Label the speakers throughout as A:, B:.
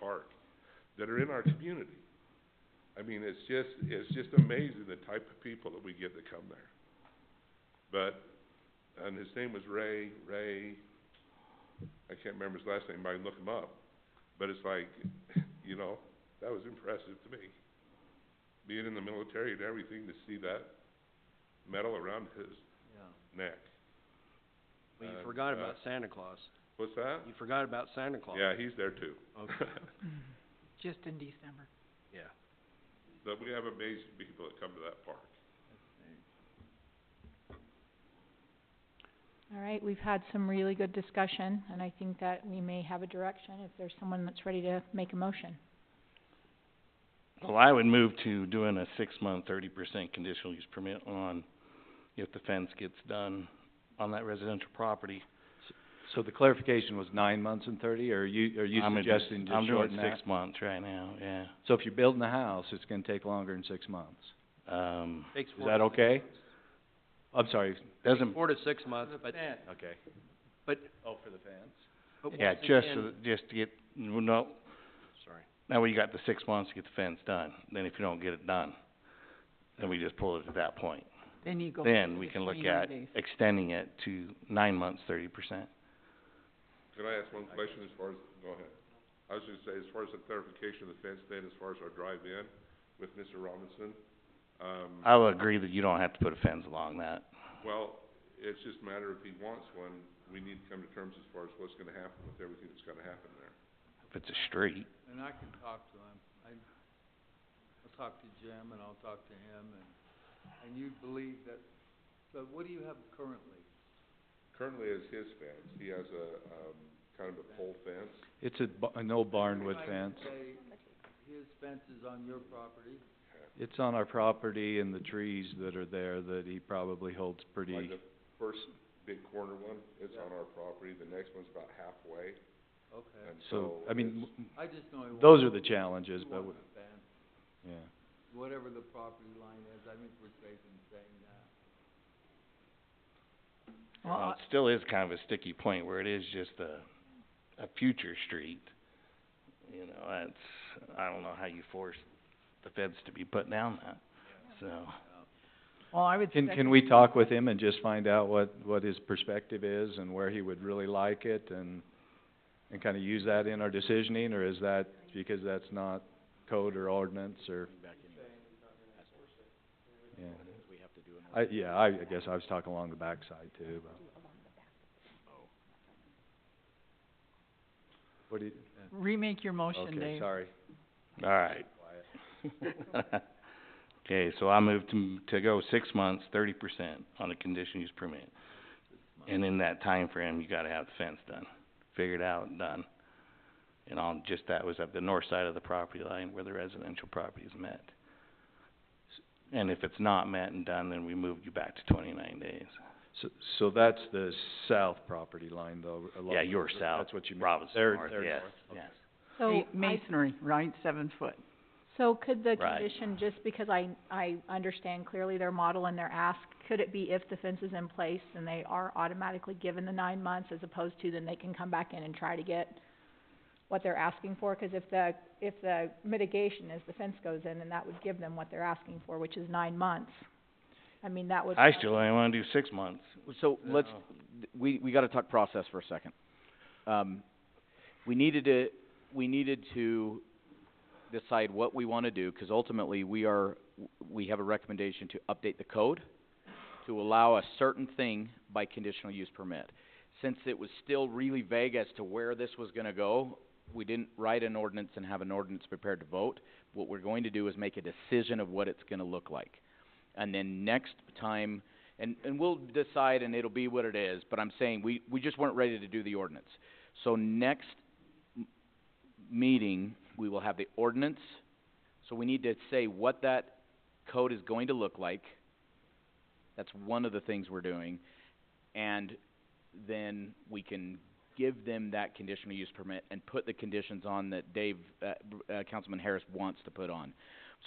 A: park that are in our community. I mean, it's just, it's just amazing the type of people that we get that come there. But, and his name was Ray, Ray, I can't remember his last name, I can look him up. But it's like, you know, that was impressive to me. Being in the military and everything, to see that medal around his
B: Yeah.
A: neck.
B: Well, you
A: Uh,
B: forgot
A: uh,
B: about Santa Claus.
A: What's that?
B: You forgot about Santa Claus.
A: Yeah, he's there too.
B: Okay.
C: just in December.
B: Yeah.
A: But we have amazing people that come to that park.
D: All right, we've had some really good discussion, and I think that we may have a direction if there's someone that's ready to make a motion.
E: Well, I would move to doing a six-month, thirty percent conditional use permit on if the fence gets done on that residential property.
B: So the clarification was nine months and thirty, or are you, are you
E: I'm gonna do-
B: suggesting just shorten
E: I'm
B: that?
E: doing six months right now, yeah.
B: So if you're building a house, it's gonna take longer than six months.
E: Um,
B: Takes
E: is that okay?
B: I'm sorry,
E: Doesn't,
F: Four to six months, but,
B: okay.
F: But-
B: Oh, for the fence?
F: but
E: yeah,
F: once
E: just
F: again-
E: so, that- just to get, well, no,
B: Sorry.
E: now we got the six months to get the fence done. Then if you don't get it done, then we just pull it at that point.
C: Then you go
E: Then
C: to
E: we
C: the
E: can look
C: 29
E: at
C: days.
E: extending it to nine months, thirty percent.
A: Can I ask one question as far as, go ahead. I was gonna say, as far as the clarification of the fence thing, as far as our drive-in with Mr. Robinson, um,
E: I will agree that you don't have to put a fence along that.
A: well, it's just a matter if he wants one, we need to come to terms as far as what's gonna happen with everything that's gonna happen there.
E: If it's a street,
G: And I can talk to him, I, I'll talk to Jim and I'll talk to him and, and you believe that, so what do you have currently?
A: Currently, it's his fence. He has a, um, kind of a pole fence.
B: It's a ba- an old barn wood
G: If I
B: fence.
G: could say, his fence is on your property,
B: It's on our property and the trees that are there that he probably holds pretty,
A: Like the first big corner one is on our property, the next one's about halfway,
G: okay.
A: and
B: so,
A: so
B: I mean,
A: it's-
B: w-
G: I just know he wants.
B: those are the challenges,
G: he
B: but,
G: wants
B: w-
G: a fence,
B: yeah.
G: whatever the property line is, I think we're safe in saying that.
C: Well,
E: Well,
C: I-
E: it still is kind of a sticky point where it is just a, a future street. You know, that's, I don't know how you force the feds to be put down that, so.
C: Well, I would
B: Can,
C: second-
B: can we talk with him and just find out what, what his perspective is and where he would really like it and, and kinda use that in our decisioning, or is that, because that's not code or ordinance or? Yeah. I, yeah, I, I guess I was talking along the backside too, but. What do you,
C: Remake your motion,
B: okay,
C: Dave.
B: sorry.
E: All right. Okay, so I moved to, m- to go six months, thirty percent on a condition use permit. And in that time frame, you gotta have the fence done, figured out and done. And on, just that was at the north side of the property line where the residential property is met. S- And if it's not met and done, then we move you back to twenty-nine days.
B: So, so that's the south property line though, along.
E: Yeah, your south,
B: That's what you meant.
E: Robinson
B: They're-
E: North,
B: they're
E: yes,
B: north, okay.
E: yes.
D: So
C: Ma-
D: I,
C: Masonry, right, seven foot.
D: so could the
E: Right.
D: condition, just because I, I understand clearly their model and their ask, could it be if the fence is in place and they are automatically given the nine months as opposed to then they can come back in and try to get what they're asking for? 'Cause if the, if the mitigation is the fence goes in, then that would give them what they're asking for, which is nine months. I mean, that would.
E: I still only wanna do six months.
F: So let's, th- we, we gotta talk process for a second. Um, we needed to, we needed to decide what we wanna do, 'cause ultimately we are, w- we have a recommendation to update the code to allow a certain thing by conditional use permit. Since it was still really vague as to where this was gonna go, we didn't write an ordinance and have an ordinance prepared to vote. What we're going to do is make a decision of what it's gonna look like. And then next time, and, and we'll decide and it'll be what it is, but I'm saying, we, we just weren't ready to do the ordinance. So next m- meeting, we will have the ordinance, so we need to say what that code is going to look like. That's one of the things we're doing, and then we can give them that conditional use permit and put the conditions on that Dave, uh, uh, Councilman Harris wants to put on.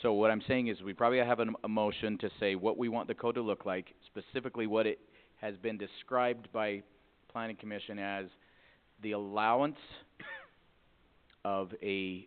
F: So what I'm saying is we probably have an, a motion to say what we want the code to look like, specifically what it has been described by planning commission as the allowance of a